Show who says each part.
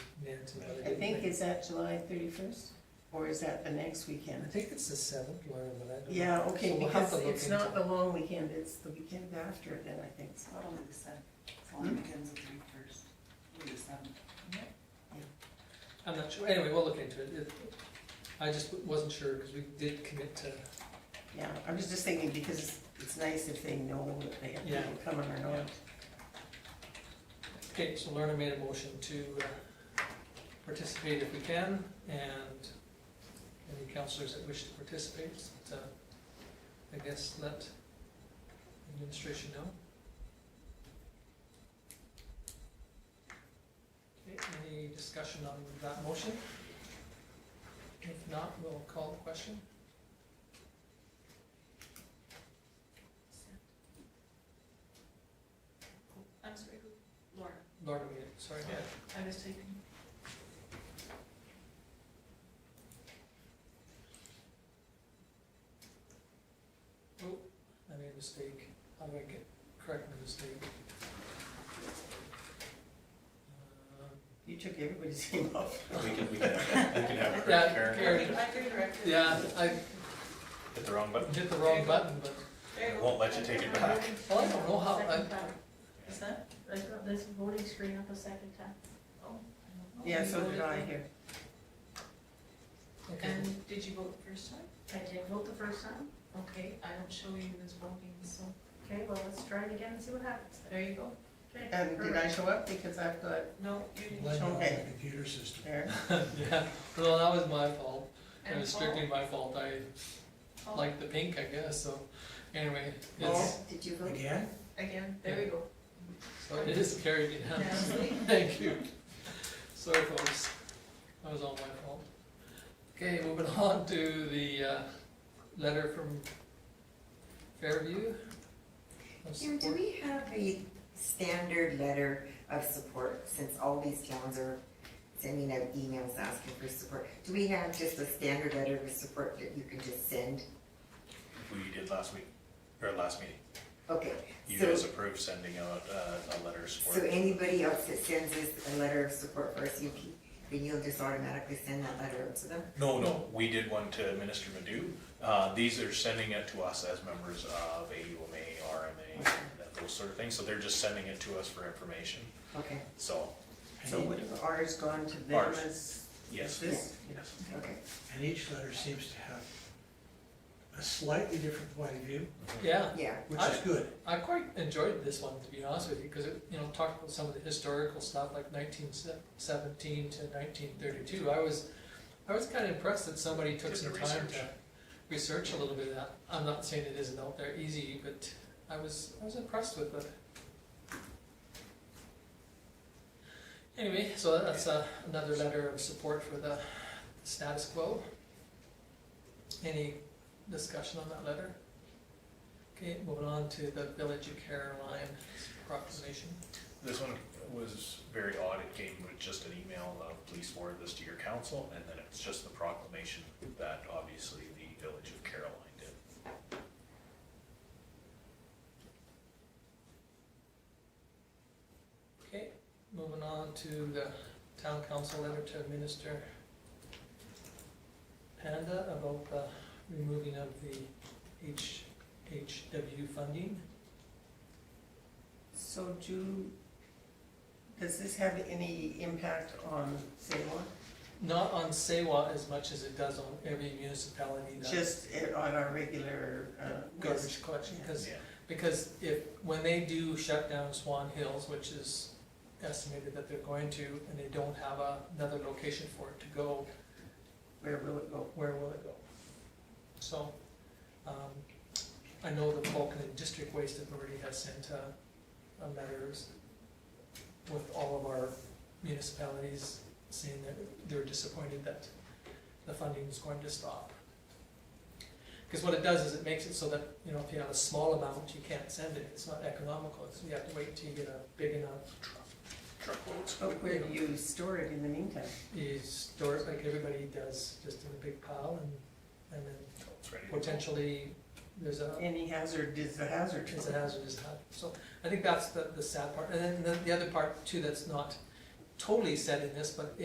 Speaker 1: into the.
Speaker 2: I think, is that July thirty-first, or is that the next
Speaker 1: I
Speaker 2: weekend?
Speaker 1: think it's the seventh, Laura, but I don't. know.
Speaker 2: Yeah,
Speaker 1: So
Speaker 2: okay,
Speaker 1: we'll have
Speaker 2: because
Speaker 1: to look
Speaker 2: it's not
Speaker 1: into
Speaker 2: the long weekend, it's the weekend after then, I think, so.
Speaker 3: That'll be the seventh, it's
Speaker 2: Hmm?
Speaker 3: only begins the three first, it'll be the seventh.
Speaker 1: it. I'm not sure, anyway, we'll look into it. It- I just wasn't sure, because we did commit to,
Speaker 2: Yeah, I was just thinking, because it's nice if they know that they have
Speaker 1: Yeah.
Speaker 2: people coming or not.
Speaker 1: okay, so Lorna made a motion to uh, participate if we can, and any counselors that wish to participate, uh, I guess let administration know. Okay, any discussion on that motion? If not, we'll call the question.
Speaker 4: I'm sorry, Laura,
Speaker 1: Lorna made it, sorry.
Speaker 4: I was taking.
Speaker 1: I made a mistake. How do I get, correct my mistake? Uh,
Speaker 2: You took everybody's name off.
Speaker 5: We can, we can, we can have
Speaker 1: Yeah,
Speaker 5: Karen
Speaker 1: Karen.
Speaker 4: Under director.
Speaker 1: Yeah, I
Speaker 5: hit the wrong button.
Speaker 1: hit the wrong button, but,
Speaker 4: There you
Speaker 5: It
Speaker 4: go.
Speaker 5: won't let you take it back.
Speaker 1: well, I don't know how, I,
Speaker 4: Second time. Is that?
Speaker 6: I got this voting screen up a second time.
Speaker 4: Oh. I don't know.
Speaker 2: Yeah, so
Speaker 4: You
Speaker 2: did
Speaker 4: voted
Speaker 2: I here.
Speaker 4: for-
Speaker 1: okay,
Speaker 4: And did you vote the first time?
Speaker 6: I did vote the first time.
Speaker 4: Okay, I don't show you as voting, so
Speaker 6: Okay, well, let's try it again and see what happens.
Speaker 4: there you go.
Speaker 6: Okay.
Speaker 2: And did I
Speaker 6: perfect.
Speaker 2: show up? Because I've got
Speaker 4: No, you didn't.
Speaker 1: Let-
Speaker 2: Okay.
Speaker 7: Computer system.
Speaker 2: there.
Speaker 1: yeah, well, that was my fault. It
Speaker 4: And
Speaker 1: was
Speaker 4: Paul-
Speaker 1: uh, strictly my fault. I
Speaker 4: Paul,
Speaker 1: like the pink, I guess, so, anyway,
Speaker 2: Oh,
Speaker 1: it's,
Speaker 2: did you vote?
Speaker 7: Again?
Speaker 4: Again, there we go.
Speaker 1: so it is carried unanimously.
Speaker 4: Now, see?
Speaker 1: Thank you. Sorry, folks. That was all my fault. Okay, moving on to the uh, letter from Fairview. of
Speaker 8: Jim, do
Speaker 1: support.
Speaker 8: we have a standard letter of support, since all these towns are sending out emails asking for support? Do we have just a standard letter of support that you can just send?
Speaker 5: We did last week, or last meeting.
Speaker 8: Okay,
Speaker 5: You
Speaker 8: so,
Speaker 5: guys approved sending out uh, a letter of
Speaker 8: so
Speaker 5: support.
Speaker 8: anybody else that sends us a letter of support for us, you can, then you'll just automatically send that letter out to them?
Speaker 5: No, no, we did one to Minister Madhu. Uh, These are sending it to us as members of AUMA, RMA, and that- those sort of things. So they're just sending it to us for information.
Speaker 8: Okay,
Speaker 5: So,
Speaker 2: So would have ours gone to them
Speaker 5: Ours.
Speaker 2: as? as
Speaker 5: yes,
Speaker 2: this?
Speaker 5: yes.
Speaker 8: okay.
Speaker 7: And each letter seems to have a slightly different point of view,
Speaker 1: Yeah,
Speaker 8: Yeah,
Speaker 7: which is good.
Speaker 1: I quite enjoyed this one, to be honest with you, because it, you know, talked about some of the historical stuff, like nineteen seventeen to nineteen thirty-two. I was, I was kind of impressed that somebody took
Speaker 5: Did
Speaker 1: some
Speaker 5: the
Speaker 1: time
Speaker 5: research.
Speaker 1: to research a little bit of that. I'm not saying it isn't out there easy, but I was, I was impressed with it. Anyway, so that's uh, another letter of support for the status quo. Any discussion on that letter? Okay, moving on to the Village of Caroline proclamation.
Speaker 5: This one was very odd. It came with just an email of, please forward this to your council. And then it's just the proclamation that obviously the Village of Caroline did.
Speaker 1: Okay, moving on to the town council letter to Minister Panda about the removing of the HHW funding.
Speaker 2: So do, does this have any impact on Salem?
Speaker 1: Not on Sewa as much as it does on every municipality that
Speaker 2: Just i- on our regular, uh, list?
Speaker 1: garbage collection, because
Speaker 5: Yeah.
Speaker 1: Because if, when they do shut down Swan Hills, which is estimated that they're going to, and they don't have a- another location for it to go,
Speaker 2: Where will it go?
Speaker 1: where will it go? So, um, I know the Vulcan District Waste Authority has sent a, a letters with all of our municipalities saying that they're disappointed that the funding is going to stop. Because what it does is it makes it so that, you know, if you have a small amount, you can't send it, it's not economical, so you have to wait till you get a big enough
Speaker 5: Truckloads.
Speaker 2: But where do you store it in the meantime?
Speaker 1: You store it like everybody does, just in a big pile, and, and then
Speaker 5: It's ready to go.
Speaker 1: potentially, there's a,
Speaker 2: Any hazard is a hazard.
Speaker 1: It's a hazardous type, so I think that's the, the sad part, and then the, the other part too that's not totally said in this, but